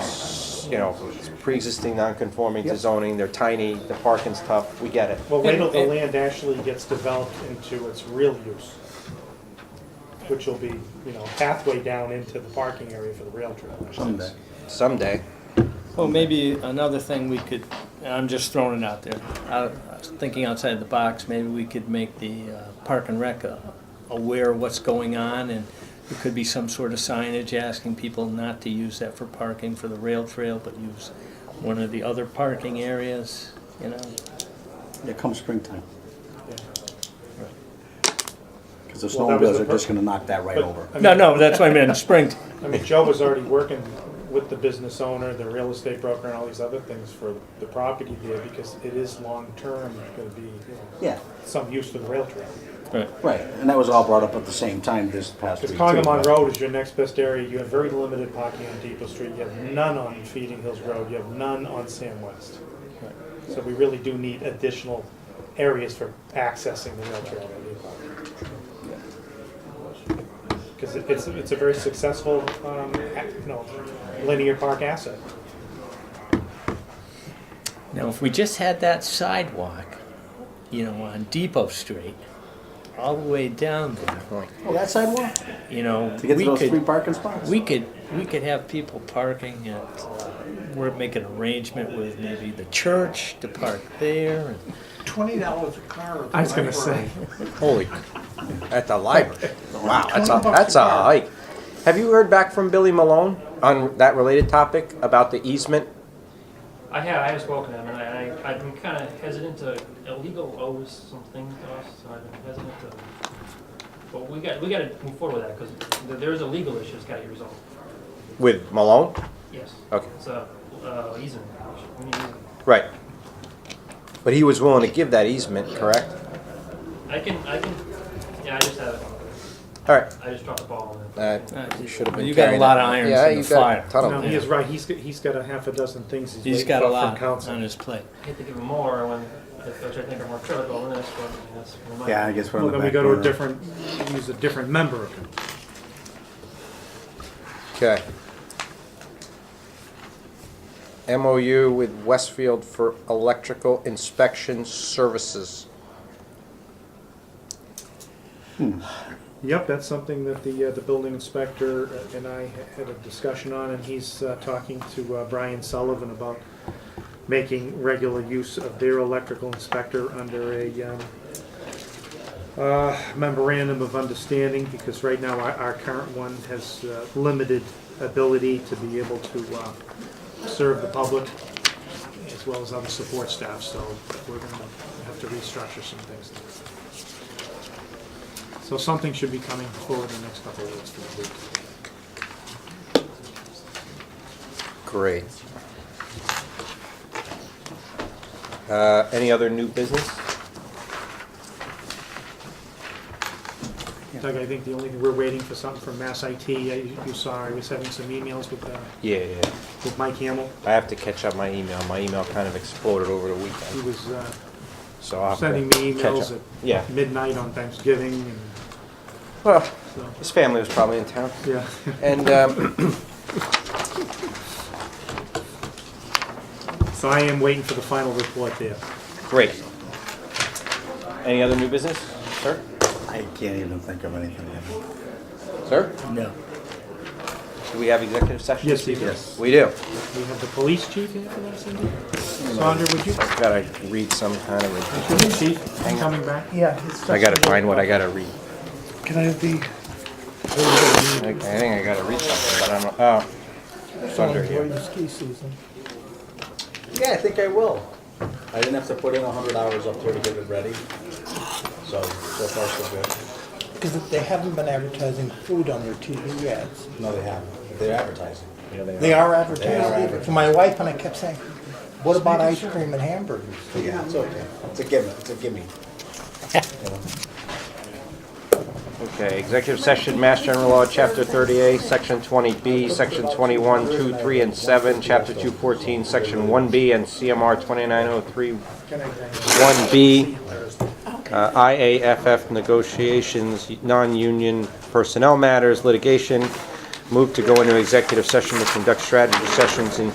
you know, it's pre-existing non-conforming to zoning, they're tiny, the parking's tough, we get it. Well, wait till the And- land actually gets developed into its real use, which will be, you know, halfway down into the parking area for the rail trail. I should say. Someday. Someday. Well, maybe another thing we could, and I'm just throwing it out there, I I was thinking outside the box, maybe we could make the uh, Park and Rec uh, aware of what's going on, and there could be some sort of signage asking people not to use that for parking for the rail trail, but use one of the other parking areas, you know? Yeah, come springtime. Yeah. Because the Well, that was snowmobiles the are just pur- gonna knock that right But, uh, over. I mean, No, no, that's what I meant, spring, I mean, Joe was already working with the business owner, the real estate broker, and all these other things for the property there because it is long-term going to be, you know, Yeah, some use for the rail trail. right, right. And that was all brought up at the same time this past Because week. Congamon too. Road is your next best area, you have very limited parking on Depot Street, you have none on Feeding Hills Road, you have none on Sam West. So we really do need additional areas for accessing the rail trail. Because it's, it's a very successful, um, ac- you know, linear park asset. Now, if we just had that sidewalk, you know, on Depot Street, all the way down there, Oh, that sidewalk? you know, To get to we those three could, parking spots? we could, we could have people parking at, uh, we're making arrangement with maybe the church to park there. and- Twenty dollars a car. I was gonna say. Holy, at the library. Wow, that's a, 20 bucks that's a a car. hike. Have you heard back from Billy Malone on that related topic about the easement? I have, I have spoken to them, and I, I- I've been kind of hesitant to, illegal owes some things to us, so I've been hesitant to, but we got, we got to move forward with that, because there is a legal issue that's got to be resolved, With Malone? yes. Okay. It's a, uh, easement, issue. we need easement. Right. But he was willing to give that easement, correct? I can, I can, yeah, I just have, it. All right. I just dropped the ball on it. Uh, Uh, you should have been you got a carrying lot it. of irons yeah, in the you got fire. A ton of No, them. he is right, he's, got- he's got a half a dozen things he's He's waiting got a for from lot on council. his plate. I hate to give them more when, which I think are more critical than this one, I mean, that's. we're not- Yeah, I guess we're Well, on then the we back go to a burner. different, use a different member of it. Okay. MOU with Westfield for electrical inspection services. Yep, that's something that the, uh, the building inspector and I had a discussion on, and he's, uh, talking to, uh, Brian Sullivan about making regular use of their electrical inspector under a, um, uh, memorandum of understanding, because right now our, our current one has, uh, limited ability to be able to, uh, serve the public as well as other support staff, so we're gonna have to restructure some things. So something should be coming forward in the next couple of weeks. to complete. Great. Uh, any other new business? Doug, I think the only, we're waiting for something from Mass IT. Uh, You you saw, I was having some emails with, uh, Yeah, yeah. with Mike Hamel. I have to catch up my email. My email kind of exploded over the He weekend, was uh, so I'll have to sending me catch emails up. Yeah. at midnight on Thanksgiving, and Well, so, his family was probably in town, yeah. and um, So I am waiting for the final report there. great. Any other new business, sir? I can't even think of anything. Sir, No. do we have executive session? Yes, Steve, Yes. We do. we have the police chief here for that, Cindy? Sandra, would you, Gotta read some kind of. a- police chief, coming back? Yeah. it's I gotta just- find what I gotta read. Can I have the? I, I think I gotta read something, but I don't. Oh, it's under Enjoy here. the ski season. Yeah, I think I will. I didn't have to put in hundred hours up there to get it ready. So, so far so good. Because they haven't been advertising food on their TV ads. No, they haven't. They're advertising. They are advertising. advertising. To my wife and I kept saying, what about ice cream and hamburgers? Yeah, it's okay. It's a gimme, it's a gimme. Okay, executive session, Mass General Law, Chapter 38, Section 20B, Section 21, 2, 3, and 7, Chapter 214, Section 1B, and CMR 2903 1B, uh, IAFF negotiations, non-union personnel matters, litigation. Move to go into executive session to conduct strategy sessions in